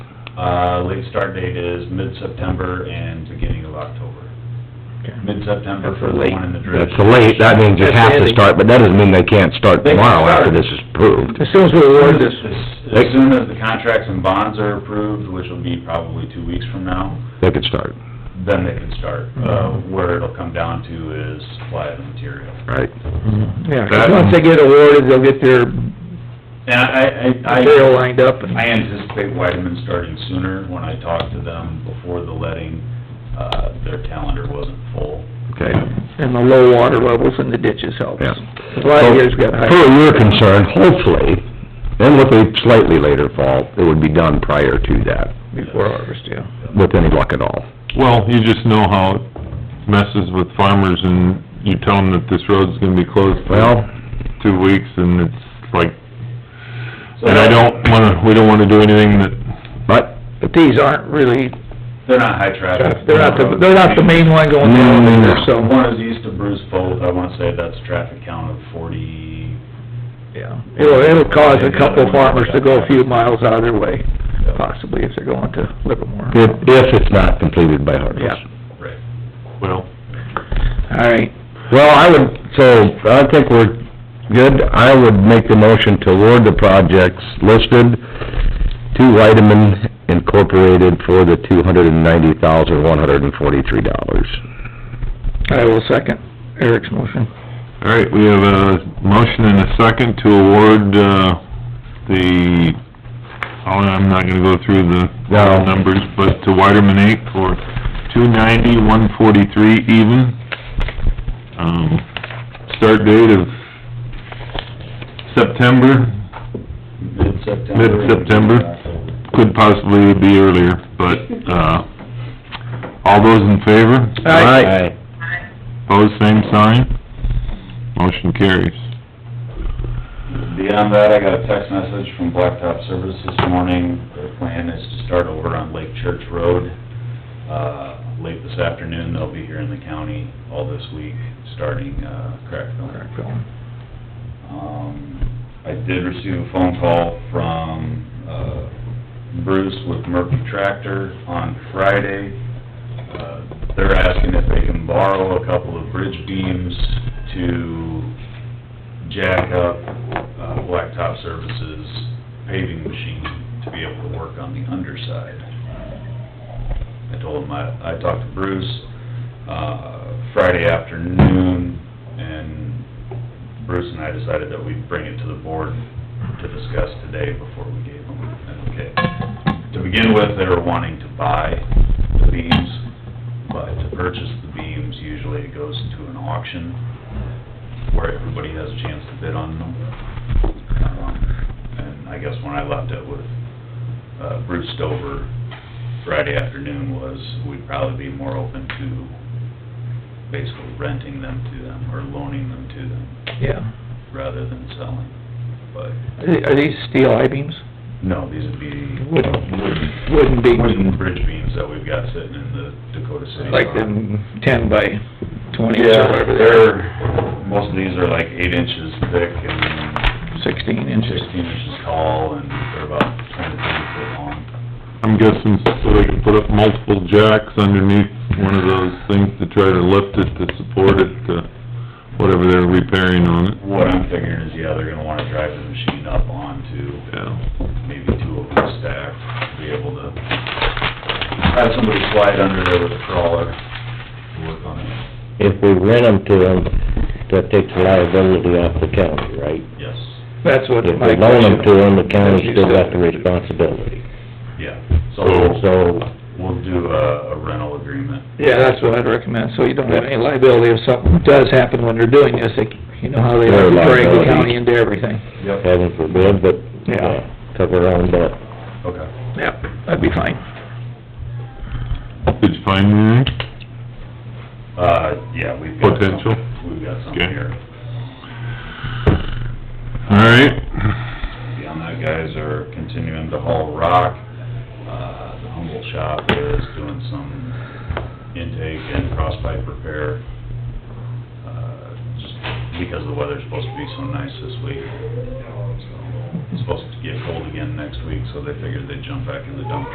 Uh, league start date is mid-September and beginning of October. Mid-September for the one in the dredge. That's late, that means you have to start, but that doesn't mean they can't start They can tomorrow after start. this is approved. As soon as we award this, As as soon as the contracts and bonds are approved, which will be probably two weeks from now, They could start, then they can start. Uh, where it'll come down to is supply of the material. Mm-hmm. right? yeah, 'cause once they get awarded, they'll get their And I, I, I. material lined up and... I anticipate Weideman starting sooner. When I talked to them before the letting, uh, their calendar wasn't full. Okay. and the low water levels in the ditches help. Yeah. A lot of years got For high. your concern, hopefully, then with a slightly later fall, it would be done prior to that, Before harvest, yeah. with any luck at all. Well, you just know how it messes with farmers and you tell them that this road's gonna be closed Well, for two weeks and it's like, So and I don't wanna, we don't wanna do anything that, but, But these aren't really, They're not high traffic. they're not the, they're not the main one going down there, The so, One is east of Bruce Fold. I wanna say that's traffic count of forty. yeah. It'll, it'll cause a couple farmers to go a few miles out of their way, uh, possibly if they're going to Livermore. if, if it's not completed by harvest. Yeah. Right. well, All right, Well, I would, so, I think we're good, I would make the motion to award the projects listed to Whiteman Incorporated for the two hundred and ninety thousand, one hundred and forty-three dollars. I will second Eric's motion. all right, we have a motion and a second to award, uh, the, oh, I'm not gonna go through the No. numbers, but to Weiderman Inc. for two ninety, one forty-three even. Um, start date of September, Mid-September. Mid-September. October. could possibly be earlier, but, uh, all those in favor? Aye. Pose same sign. Motion carries. Beyond that, I got a text message from Blacktop Service this morning. Their plan is to start over on Lake Church Road. Uh, late this afternoon, they'll be here in the county all this week, starting, uh, crack filling. Um, I did receive a phone call from, uh, Bruce with Murphy Tractor on Friday. Uh, They're asking if they can borrow a couple of bridge beams to jack up, uh, Blacktop Services paving machine to be able to work on the underside. I told him, I, I talked to Bruce, uh, Friday afternoon, and Bruce and I decided that we'd bring it to the board to discuss today before we gave them an okay. To begin with, they were wanting to buy the beams, but to purchase the beams, usually it goes to an auction where everybody has a chance to bid on them. Um, And I guess when I left it with uh, Bruce Stover Friday afternoon was, we'd probably be more open to basically renting them to them or loaning them to them Yeah. rather than selling, but, Are these steel I-beams? no, these would be Wooden. wooden, Wouldn't be wooden bridge beams that we've got sitting in the Dakota City. like Park. the ten by twenty or Yeah, whatever they are, they're, most of these are like eight inches thick and sixteen inches. sixteen inches tall, and they're about twenty-three foot long. I'm guessing so they can put up multiple jacks underneath one of those things to try to lift it, to support it, to whatever they're repairing on it. What I'm figuring is, yeah, they're gonna wanna drive the machine up onto Yeah. maybe two of them stacked, be able to have somebody slide under there with a crawler, work on it, If we rent them to them, that takes liability off the county, right? yes, That's what If my we loan question. them to them, the county's still got the responsibility. yeah. Oh. So, We'll do a a rental agreement. Yeah, that's what I'd recommend, so you don't have any liability if something does happen when they're doing this, they, you know how they Their like to drag the liability. county into everything. Yep. heaven forbid, but, Yeah. yeah, cover our own butt. Okay. Yep, that'd be fine. Did you find anything? Uh, yeah, we've got some. Potential. We've got some Okay. here. All right. Beyond that, guys are continuing to haul rock. Uh, the Humble Shop is doing some intake and cross pipe repair. uh, Just because the weather's supposed to be so nice this week. So, It's supposed to get cold again next week, so they figured they'd jump back in the dump